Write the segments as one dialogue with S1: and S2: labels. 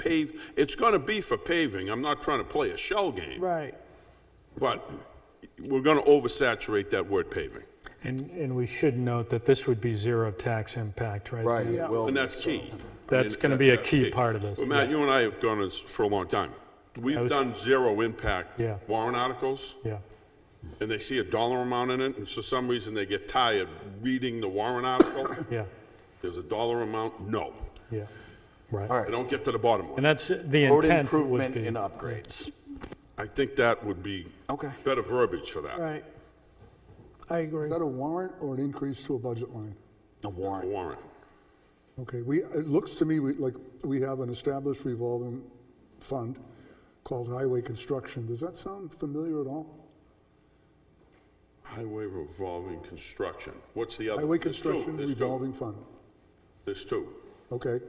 S1: pave, it's gonna be for paving, I'm not trying to play a shell game,
S2: Right.
S1: but we're gonna oversaturate that word paving,
S3: And, and we should note that this would be zero tax impact, right?
S4: Right,
S3: Dan?
S4: it will.
S1: and
S4: be.
S1: that's key.
S3: That's
S1: And-
S3: gonna be a key part of this,
S1: Well, Matt, you and I have gone this for a long time. We've
S3: was-
S1: done zero impact
S3: Yeah.
S1: warrant articles,
S3: Yeah,
S1: and they see a dollar amount in it, and for some reason they get tired reading the warrant article.
S3: yeah,
S1: There's a dollar amount, no.
S3: yeah, right.
S4: All right.
S1: They don't get to the bottom
S3: And
S1: one.
S3: that's, the
S4: Road
S3: intent would
S4: improvement
S3: be.
S4: and upgrades.
S1: I think that would be
S4: Okay.
S1: better verbiage for that.
S2: Right. I agree.
S5: Is that a warrant or an increase to a budget line?
S4: A
S1: A
S4: warrant.
S1: warrant.
S5: Okay, we, it looks to me we- like we have an established revolving fund called highway construction. Does that sound familiar at all?
S1: Highway revolving construction. What's the other?
S5: Highway
S1: There's two,
S5: construction
S1: there's two,
S5: revolving fund.
S1: There's two.
S5: Okay,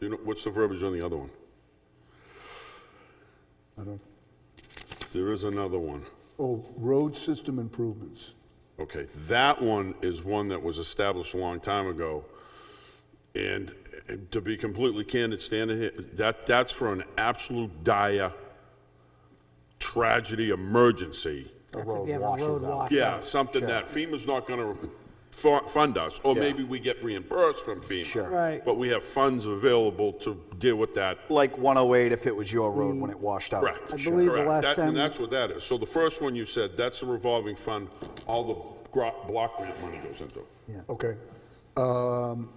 S1: You know, what's the verbiage on the other one?
S5: I don't,
S1: There is another one.
S5: oh, road system improvements.
S1: Okay, that one is one that was established a long time ago. And and to be completely candid, standing here, that, that's for an absolute dire tragedy emergency.
S4: A
S2: That's if
S4: road
S2: you have a
S4: washes
S2: road
S4: out.
S2: wash.
S1: Yeah, something that FEMA's not gonna fu- fund us, or
S4: Yeah.
S1: maybe we get reimbursed from FEMA.
S4: Sure.
S2: Right.
S1: But we have funds available to deal with that.
S4: Like 108 if it was your road when it washed out.
S1: Correct.
S6: I believe the
S1: Correct.
S6: last
S1: That-
S6: time-
S1: And that's what that is. So the first one you said, that's a revolving fund, all the gro- block grant money goes into.
S5: Okay. Um,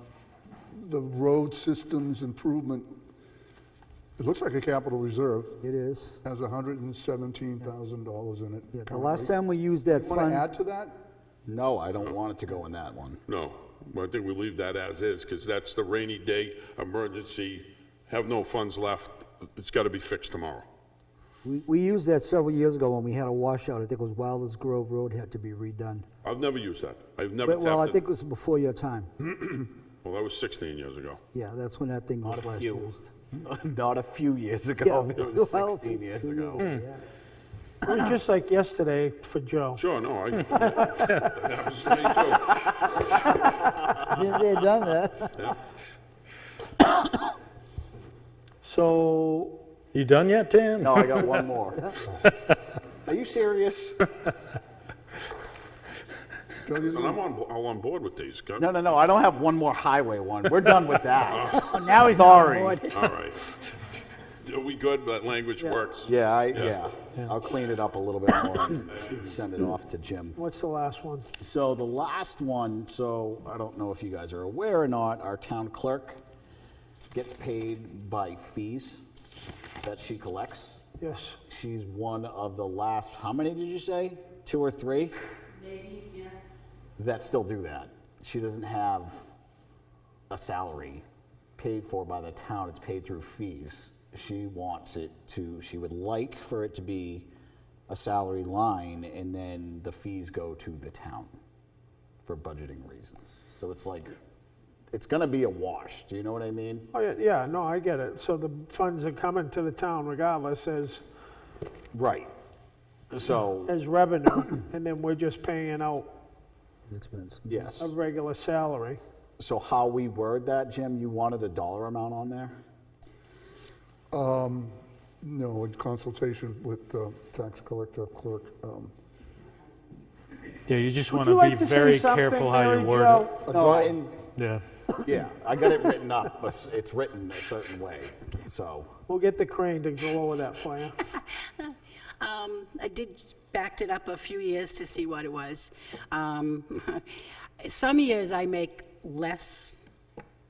S5: The road systems improvement, it looks like a capital reserve,
S6: It is.
S5: has $117,000 in it.
S6: Yeah, The
S5: currently.
S6: last time we used that
S5: Want to
S6: fund,
S5: add to that?
S4: No, I don't want it to go in that one.
S1: No, I think we leave that as is, because that's the rainy day, emergency, have no funds left, it's got to be fixed tomorrow.
S6: we we used that several years ago when we had a washout. I think it was Wilders Grove Road had to be redone.
S1: I've never used that. I've never
S6: But- Well, I
S1: tapped
S6: think
S1: it.
S6: it was before your time.
S4: Hmm?
S1: Well, that was 16 years ago.
S6: Yeah, that's when that thing was
S4: a
S6: last
S4: few.
S6: used.
S4: Not a few years
S6: Yeah,
S4: ago. It was
S6: well,
S4: 16 years
S6: two
S4: ago.
S6: yeah.
S2: It was just like yesterday for Joe.
S1: Sure, no, I, that happens to me too.
S4: Hmm.
S6: Been there, done that.
S2: So,
S3: You done yet, Dan?
S4: No, I got one more. Are you serious?
S5: Tell you
S1: And I'm on, bo- all on board with these, God.
S4: No, no, no. I don't have one more highway one. We're done with that.
S2: now he's on
S4: Sorry.
S2: board.
S1: All right. Are we good? That language works?
S4: Yeah, I, yeah. I'll clean it up a little bit more and send it off to Jim.
S2: What's the last one?
S4: So the last one, so I don't know if you guys are aware or not, our town clerk gets paid by fees that she collects.
S2: Yes.
S4: She's one of the last, how many did you say? Two or three?
S7: Maybe, yeah.
S4: that still do that. She doesn't have a salary paid for by the town, it's paid through fees. She wants it to, she would like for it to be a salary line and then the fees go to the town for budgeting reasons. So it's like, it's gonna be a wash, do you know what I mean?
S2: Oh, yeah, yeah, no, I get it. So the funds are coming to the town regardless as,
S4: Right. So,
S2: as revenue, and then we're just paying out
S6: It's expensive.
S4: yes.
S2: a regular salary.
S4: So how we word that, Jim, you wanted a dollar amount on there?
S5: No, in consultation with the tax collector clerk. um,
S3: Yeah, you just
S2: Would
S3: want
S2: you
S3: to
S2: like
S3: be
S2: to say
S3: very
S2: something,
S3: careful how
S2: Mary
S3: you word it.
S2: Jo?
S5: a
S4: No,
S5: dollar-
S4: and
S3: Yeah,
S4: Yeah, I got it written up, but s- it's written a certain way, so.
S2: We'll get the crane to go over that for you.
S7: Um, I did, backed it up a few years to see what it was. Um, Some years I make less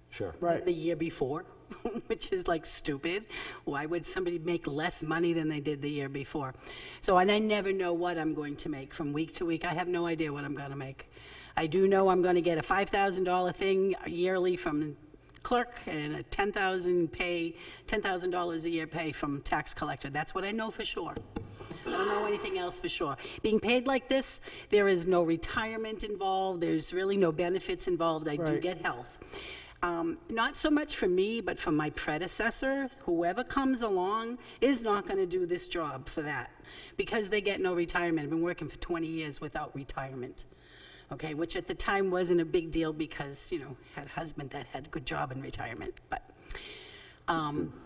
S4: Sure.
S2: Right.
S7: than the year before, which is like stupid. Why would somebody make less money than they did the year before? So, and I never know what I'm going to make from week to week. I have no idea what I'm going to make. I do know I'm going to get a $5,000 thing yearly from clerk and a 10,000 pay, $10,000 a year pay from tax collector. That's what I know for sure. I don't know anything else for sure. Being paid like this, there is no retirement involved, there's really no benefits involved. I do
S2: Right.
S7: get health. Um, Not so much for me, but for my predecessor, whoever comes along is not going to do this job for that, because they get no retirement. I've been working for 20 years without retirement, okay? Which at the time wasn't a big deal because, you know, had a husband that had a good job in retirement, but um,